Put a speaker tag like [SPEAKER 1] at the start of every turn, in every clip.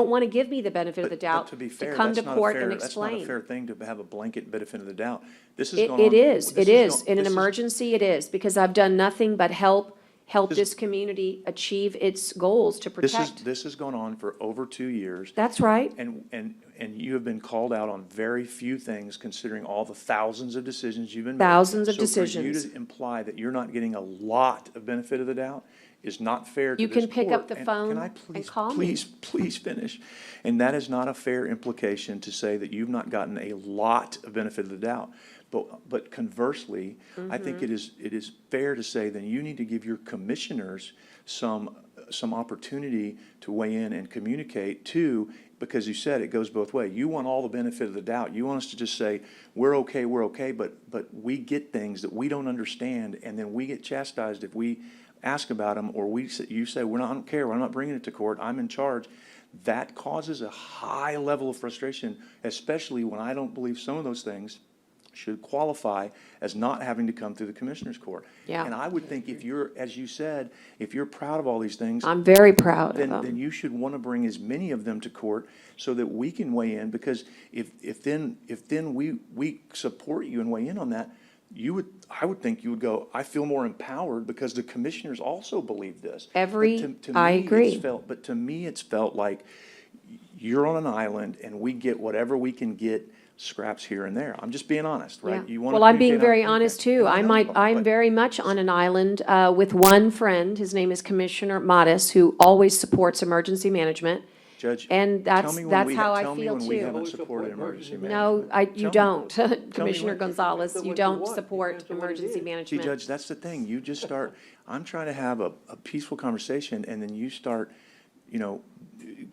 [SPEAKER 1] don't want to give me the benefit of the
[SPEAKER 2] But- but
[SPEAKER 1] doubt
[SPEAKER 2] to be fair,
[SPEAKER 1] come
[SPEAKER 2] that's
[SPEAKER 1] to
[SPEAKER 2] not a
[SPEAKER 1] court and
[SPEAKER 2] fair- That's
[SPEAKER 1] explain.
[SPEAKER 2] not a fair thing to have a blanket benefit of the doubt. This has
[SPEAKER 1] It,
[SPEAKER 2] gone on.
[SPEAKER 1] it is,
[SPEAKER 2] this
[SPEAKER 1] it is.
[SPEAKER 2] has gone-
[SPEAKER 1] In an
[SPEAKER 2] this has-
[SPEAKER 1] emergency, it is, because I've done nothing but help, help
[SPEAKER 2] This-
[SPEAKER 1] this community achieve its goals to
[SPEAKER 2] This is,
[SPEAKER 1] protect.
[SPEAKER 2] this has gone on for over two years.
[SPEAKER 1] That's right.
[SPEAKER 2] And, and, and you have been called out on very few things considering all the thousands of decisions you've been. made.
[SPEAKER 1] Thousands of
[SPEAKER 2] So for you
[SPEAKER 1] decisions.
[SPEAKER 2] to imply that you're not getting a lot of benefit of the doubt is not fair to
[SPEAKER 1] You
[SPEAKER 2] this
[SPEAKER 1] can pick up
[SPEAKER 2] court.
[SPEAKER 1] the
[SPEAKER 2] And
[SPEAKER 1] phone
[SPEAKER 2] can I
[SPEAKER 1] and
[SPEAKER 2] please-
[SPEAKER 1] call me.
[SPEAKER 2] Please, please finish. And that is not a fair implication to say that you've not gotten a lot of benefit of the doubt. But, but conversely, I
[SPEAKER 1] Mm-hmm.
[SPEAKER 2] think it is, it is fair to say then you need to give your commissioners some, some opportunity to weigh in and communicate too, because you said it goes both way. You want all the benefit of the doubt. You want us to just say, we're okay, we're okay, but, but we get things that we don't understand, and then we get chastised if we ask about them, or we, say- you say, we're not, I don't care, I'm not bringing it to court, I'm in charge. That causes a high level of frustration, especially when I don't believe some of those things should qualify as not having to come through the commissioner's court.
[SPEAKER 1] Yeah.
[SPEAKER 2] And I would think if you're, as you said, if you're proud of all these things,
[SPEAKER 1] I'm very proud of
[SPEAKER 2] then, then
[SPEAKER 1] them.
[SPEAKER 2] you should want to bring as many of them to court so that we can weigh in, because if, if then, if then we, we support you and weigh in on that, you would, I would think you would go, I feel more empowered because the commissioners also believe this. But
[SPEAKER 1] Every-
[SPEAKER 2] to- to
[SPEAKER 1] I
[SPEAKER 2] me, it's
[SPEAKER 1] agree.
[SPEAKER 2] felt- But to me, it's felt like you're on an island and we get whatever we can get scraps here and there. I'm just being honest, right?
[SPEAKER 1] Yeah.
[SPEAKER 2] You wanna
[SPEAKER 1] Well, I'm being
[SPEAKER 2] communicate,
[SPEAKER 1] very
[SPEAKER 2] okay.
[SPEAKER 1] honest too.
[SPEAKER 2] No,
[SPEAKER 1] I
[SPEAKER 2] no
[SPEAKER 1] might,
[SPEAKER 2] problem,
[SPEAKER 1] I'm
[SPEAKER 2] but-
[SPEAKER 1] very much on an island uh, with one friend. His name is Commissioner Modis, who always supports emergency management.
[SPEAKER 2] Judge,
[SPEAKER 1] and
[SPEAKER 2] tell
[SPEAKER 1] that's-
[SPEAKER 2] me when
[SPEAKER 1] that's
[SPEAKER 2] we-
[SPEAKER 1] how I
[SPEAKER 2] tell me
[SPEAKER 1] feel
[SPEAKER 2] when we
[SPEAKER 1] too.
[SPEAKER 2] haven't
[SPEAKER 3] Always
[SPEAKER 2] supported
[SPEAKER 3] support emergency
[SPEAKER 2] emergency
[SPEAKER 1] No,
[SPEAKER 2] management.
[SPEAKER 1] I,
[SPEAKER 2] Tell
[SPEAKER 1] you
[SPEAKER 2] me.
[SPEAKER 1] don't.
[SPEAKER 2] Tell me
[SPEAKER 1] Commissioner
[SPEAKER 2] when.
[SPEAKER 1] Gonzalez,
[SPEAKER 3] Tell me
[SPEAKER 1] you
[SPEAKER 3] what you
[SPEAKER 1] don't
[SPEAKER 3] want.
[SPEAKER 1] support
[SPEAKER 3] Tell me what it
[SPEAKER 1] emergency
[SPEAKER 3] is. See,
[SPEAKER 2] See,
[SPEAKER 1] management.
[SPEAKER 2] Judge, that's the thing. You just start, I'm trying to have a, a peaceful conversation and then you start, you know,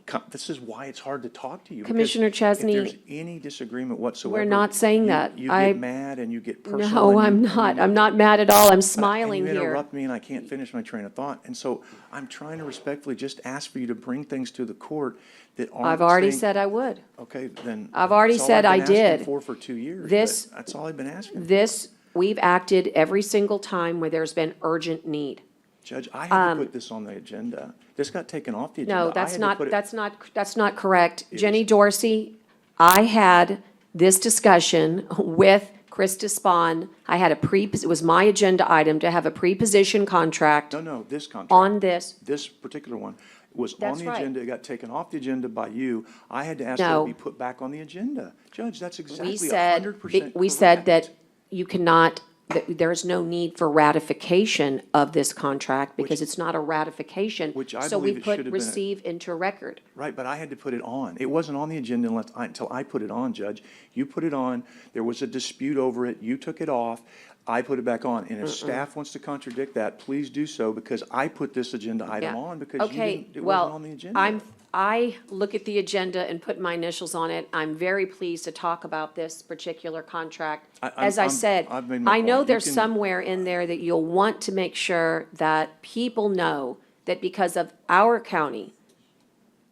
[SPEAKER 2] co- this is why it's hard to talk to you. because
[SPEAKER 1] Commissioner Chesney,
[SPEAKER 2] If there's any disagreement whatsoever.
[SPEAKER 1] not saying
[SPEAKER 2] you-
[SPEAKER 1] that.
[SPEAKER 2] You
[SPEAKER 1] I-
[SPEAKER 2] get mad and you get personal.
[SPEAKER 1] No,
[SPEAKER 2] and you-
[SPEAKER 1] I'm
[SPEAKER 2] and you
[SPEAKER 1] not. I'm not mad at all. I'm
[SPEAKER 2] but- and
[SPEAKER 1] smiling
[SPEAKER 2] You
[SPEAKER 1] here.
[SPEAKER 2] interrupt me and I can't finish my train of thought. And so I'm trying to respectfully just ask for you to bring things to the court that aren't.
[SPEAKER 1] I've already
[SPEAKER 2] saying-
[SPEAKER 1] said I would.
[SPEAKER 2] Okay, then.
[SPEAKER 1] I've already
[SPEAKER 2] that's all
[SPEAKER 1] said
[SPEAKER 2] I've
[SPEAKER 1] I
[SPEAKER 2] been asking
[SPEAKER 1] did.
[SPEAKER 2] For, for two years. but
[SPEAKER 1] This-
[SPEAKER 2] That's all I've been asking.
[SPEAKER 1] This, we've acted every single time where there's been urgent need.
[SPEAKER 2] Judge, I had to put this on the agenda. This got taken off the agenda.
[SPEAKER 1] Um, No,
[SPEAKER 2] I
[SPEAKER 1] that's
[SPEAKER 2] had to
[SPEAKER 1] not,
[SPEAKER 2] put it-
[SPEAKER 1] that's not, that's not correct. Jenny Dorsey, I had this discussion with Chris Despon. I had a pre, it was my agenda item to have a pre-position contract
[SPEAKER 2] No, no, this contract,
[SPEAKER 1] on this.
[SPEAKER 2] this particular one was on
[SPEAKER 1] That's
[SPEAKER 2] the
[SPEAKER 1] right.
[SPEAKER 2] agenda. It got taken off the agenda by you. I had to ask that
[SPEAKER 1] No.
[SPEAKER 2] it be put back on the agenda. Judge, that's
[SPEAKER 1] We
[SPEAKER 2] exactly a
[SPEAKER 1] said,
[SPEAKER 2] hundred percent
[SPEAKER 1] we said that you cannot, that there is no need for ratification of this contract because it's not a ratification.
[SPEAKER 2] which I
[SPEAKER 1] So we
[SPEAKER 2] believe it
[SPEAKER 1] put
[SPEAKER 2] should have been a-
[SPEAKER 1] receive into record.
[SPEAKER 2] Right, but I had to put it on. It wasn't on the agenda unless, I- until I put it on, Judge. You put it on, there was a dispute over it, you took it off, I put it back on. And if staff wants to contradict that, please do so, because I put this agenda item
[SPEAKER 1] Yeah.
[SPEAKER 2] on because you
[SPEAKER 1] Okay,
[SPEAKER 2] didn't, it
[SPEAKER 1] well,
[SPEAKER 2] wasn't on the agenda.
[SPEAKER 1] I'm, I look at the agenda and put my initials on it. I'm very pleased to talk about this particular contract.
[SPEAKER 2] I- I'm-
[SPEAKER 1] As I
[SPEAKER 2] I'm-
[SPEAKER 1] said,
[SPEAKER 2] I've made my
[SPEAKER 1] I know
[SPEAKER 2] point. You
[SPEAKER 1] there's
[SPEAKER 2] can-
[SPEAKER 1] somewhere in there that you'll want to make sure that people know that because of our county,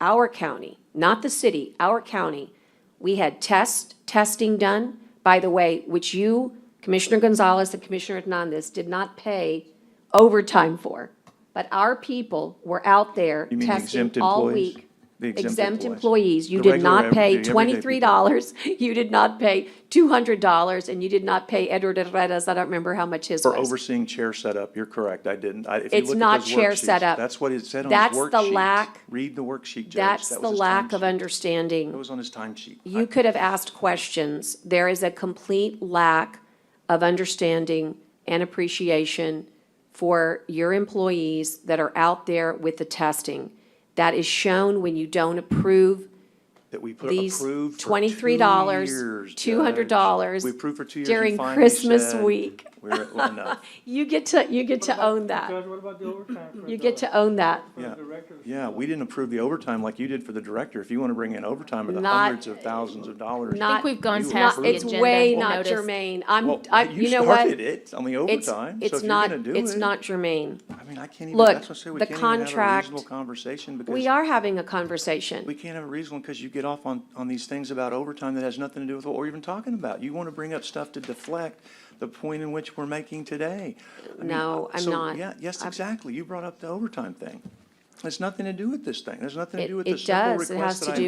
[SPEAKER 1] our county, not the city, our county, we had test, testing done, by the way, which you, Commissioner Gonzalez and Commissioner Hernandez, did not pay overtime for. But our people were out there
[SPEAKER 2] You mean the
[SPEAKER 1] testing
[SPEAKER 2] exempt
[SPEAKER 1] all
[SPEAKER 2] employees?
[SPEAKER 1] week.
[SPEAKER 2] The exempt employees.
[SPEAKER 1] employees, you
[SPEAKER 2] The
[SPEAKER 1] did
[SPEAKER 2] regular
[SPEAKER 1] not
[SPEAKER 2] ev- the
[SPEAKER 1] pay
[SPEAKER 2] everyday
[SPEAKER 1] twenty-three dollars, you did not pay two hundred dollars, and you did not pay Edward Herrera's, I don't remember how much his was.
[SPEAKER 2] For overseeing chair setup, you're correct, I didn't. I- if you
[SPEAKER 1] It's
[SPEAKER 2] look at
[SPEAKER 1] not
[SPEAKER 2] those
[SPEAKER 1] chair
[SPEAKER 2] worksheets,
[SPEAKER 1] setup.
[SPEAKER 2] That's what it said on
[SPEAKER 1] That's
[SPEAKER 2] his
[SPEAKER 1] the
[SPEAKER 2] worksheet.
[SPEAKER 1] lack-
[SPEAKER 2] Read the worksheet, Judge.
[SPEAKER 1] That's
[SPEAKER 2] That
[SPEAKER 1] the
[SPEAKER 2] was his
[SPEAKER 1] lack
[SPEAKER 2] timesheet.
[SPEAKER 1] of understanding.
[SPEAKER 2] That was on his timesheet.
[SPEAKER 1] You could have asked questions. There is a complete lack of understanding and appreciation for your employees that are out there with the testing. That is shown when you don't approve
[SPEAKER 2] That we put
[SPEAKER 1] these
[SPEAKER 2] approved for two
[SPEAKER 1] twenty-three dollars,
[SPEAKER 2] years,
[SPEAKER 1] two hundred
[SPEAKER 2] Judge.
[SPEAKER 1] dollars.
[SPEAKER 2] We approved for two years. and
[SPEAKER 1] During
[SPEAKER 2] finally
[SPEAKER 1] Christmas
[SPEAKER 2] said,
[SPEAKER 1] week.
[SPEAKER 2] We're, well, no.
[SPEAKER 1] You get to, you get to own that.
[SPEAKER 3] Judge, what about the overtime? for
[SPEAKER 1] You
[SPEAKER 3] the-
[SPEAKER 1] get to own that.
[SPEAKER 3] for the
[SPEAKER 2] Yeah.
[SPEAKER 3] directors?
[SPEAKER 2] Yeah, we didn't approve the overtime like you did for the director. If you want to bring in overtime of the
[SPEAKER 1] Not-
[SPEAKER 2] hundreds of thousands of dollars.
[SPEAKER 1] Not-
[SPEAKER 4] we've gone
[SPEAKER 2] you
[SPEAKER 4] past the
[SPEAKER 2] approved it.
[SPEAKER 1] It's way
[SPEAKER 4] agenda
[SPEAKER 1] not
[SPEAKER 4] notice.
[SPEAKER 1] germane. I'm,
[SPEAKER 2] Well,
[SPEAKER 1] I,
[SPEAKER 2] you
[SPEAKER 1] you know what?
[SPEAKER 2] started it on the
[SPEAKER 1] It's,
[SPEAKER 2] overtime, so
[SPEAKER 1] it's
[SPEAKER 2] if you're
[SPEAKER 1] not,
[SPEAKER 2] going to do it.
[SPEAKER 1] it's not germane.
[SPEAKER 2] I mean, I can't even,
[SPEAKER 1] Look,
[SPEAKER 2] that's what I say, we
[SPEAKER 1] the
[SPEAKER 2] can't even have a
[SPEAKER 1] contract-
[SPEAKER 2] reasonable conversation because.
[SPEAKER 1] We are having a conversation.
[SPEAKER 2] We can't have a reason because you get off on, on these things about overtime that has nothing to do with what we're even talking about. You want to bring up stuff to deflect the point in which we're making today. I mean, uh,
[SPEAKER 1] No, I'm
[SPEAKER 2] so,
[SPEAKER 1] not.
[SPEAKER 2] Yeah, yes,
[SPEAKER 1] I'm-
[SPEAKER 2] exactly. You brought up the overtime thing. It's nothing to do with this thing. There's nothing to
[SPEAKER 1] It-
[SPEAKER 2] do with
[SPEAKER 1] it
[SPEAKER 2] the simple
[SPEAKER 1] does. It has
[SPEAKER 2] request that
[SPEAKER 1] to
[SPEAKER 2] I
[SPEAKER 1] do